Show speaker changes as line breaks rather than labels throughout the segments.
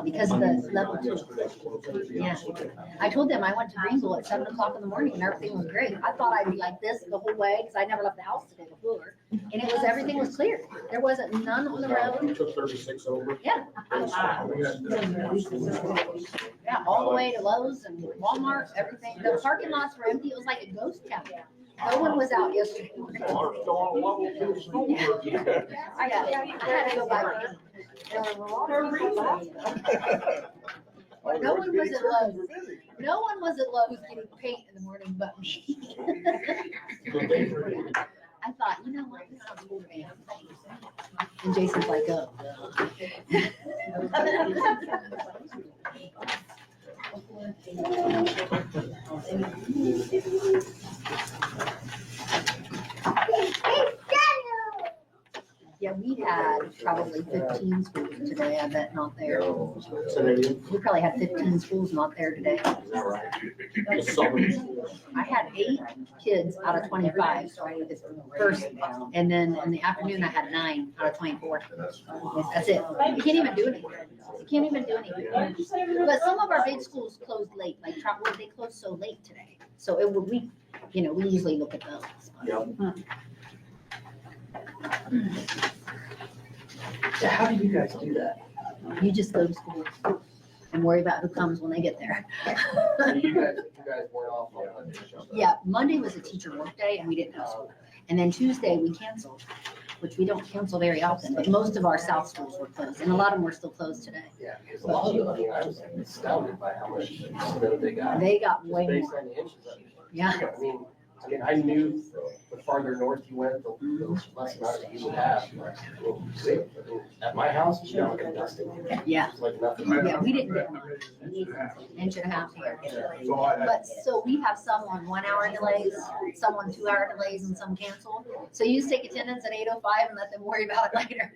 because of the level two. Yeah. I told them I went to Greenville at seven o'clock in the morning and everything was great. I thought I'd be like this the whole way because I never left the house today before. And it was, everything was clear. There wasn't none on the road.
We took thirty-six over.
Yeah. Yeah, all the way to Lowe's and Walmart, everything. The parking lots were empty. It was like a ghost town. No one was out yesterday.
Ours still on level two school.
I got- I had to go by. No one was at Lowe's. No one was at Lowe's getting paint in the morning but me. I thought, you know what, this sounds cool, man. And Jason's like, oh. Yeah, we had probably fifteen schools today, I bet not there. We probably had fifteen schools not there today. I had eight kids out of twenty-five, so I did this first, and then in the afternoon, I had nine out of twenty-four. That's it. You can't even do anything. You can't even do anything. But some of our big schools closed late, like Trotwood, they closed so late today. So it would, we, you know, we usually look at those.
So how do you guys do that?
You just go to school and worry about who comes when they get there.
You guys, you guys went off on Monday.
Yeah, Monday was a teacher workday and we didn't have school. And then Tuesday, we canceled, which we don't cancel very often, but most of our south schools were closed and a lot of them were still closed today.
Yeah, because a lot of, I mean, I was astounded by how much snow they got.
They got
Just
way
Based
more,
on the inches of it.
yeah.
I mean, I mean, I knew the farther north you went, the the less amount that you would have. At my house, you know, like nothing.
Yeah.
It's like nothing.
Yeah, we didn't get one, inch and a half here. But, so we have some on one hour delays, some on two hour delays and some canceled. So you just take attendance at eight oh five and let them worry about it later.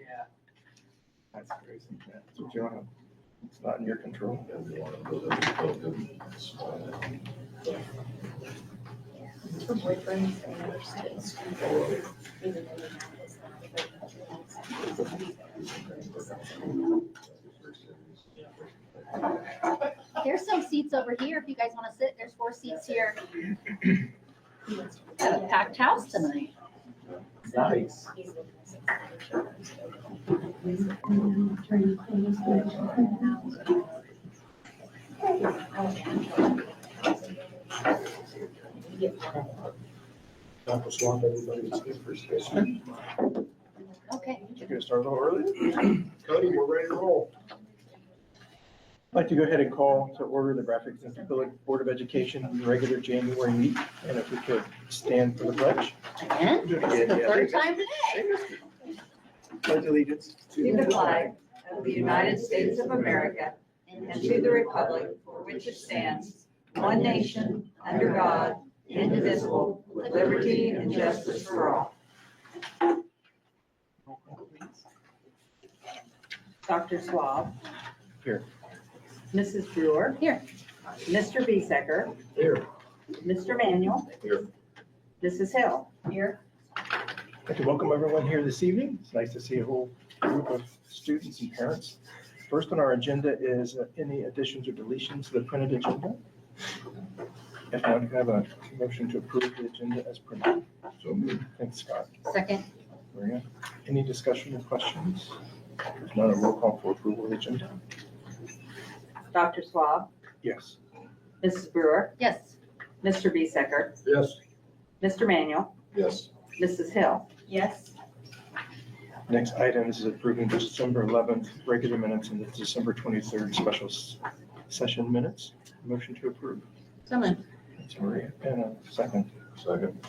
That's crazy. That's what you want. It's not in your control.
There's some seats over here if you guys wanna sit. There's four seats here. Got a packed house tonight.
Nice.
Not swamp everybody.
Okay.
You're gonna start a little early?
Cody, we're ready to roll.
I'd like to go ahead and call to order the Graphic Center Village Board of Education regular January meet, and if we could stand for the pledge.
Again, it's the third time today.
Pledge allegiance
To the flag of the United States of America and to the republic for which it stands, one nation, under God, indivisible, with liberty and justice for all. Dr. Swab.
Here.
Mrs. Brewer.
Here.
Mr. Bezeker.
Here.
Mr. Manuel.
Here.
Mrs. Hill. Here.
I'd like to welcome everyone here this evening. It's nice to see a whole group of students and parents. First on our agenda is uh, any additions or deletions to the printed agenda. If I could have a motion to approve the agenda as printed. So moved. Thanks, Scott.
Second,
Maria, any discussion or questions? If not, a roll call for approval of the agenda.
Dr. Swab.
Yes.
Mrs. Brewer.
yes,
Mr. Bezeker.
Yes.
Mr. Manuel.
Yes.
Mrs. Hill. Yes.
Next item is approving the December 11th regular minutes and the December 23rd special s- session minutes. Motion to approve.
someone,
Thanks, Maria. And a second. Second.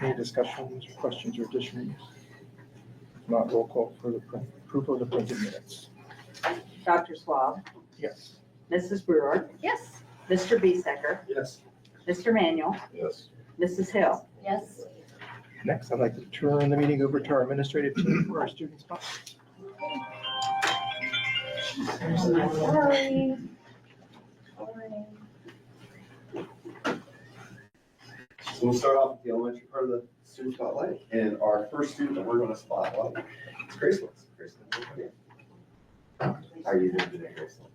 Any discussions, questions, or additions? If Not roll call for the print- approval of the printed minutes.
Dr. Swab.
Yes.
Mrs. Brewer.
yes.
Mr. Bezeker.
Yes.
Mr. Manuel.
Yes.
Mrs. Hill.
Yes.
Next, I'd like to turn the meeting over to our administrative team for our students.
So we'll start off with the elementary part of the student spotlight, and our first student that we're gonna spotlight is Grace Lewis. Grace, come on up here.
How are you doing today, Grace?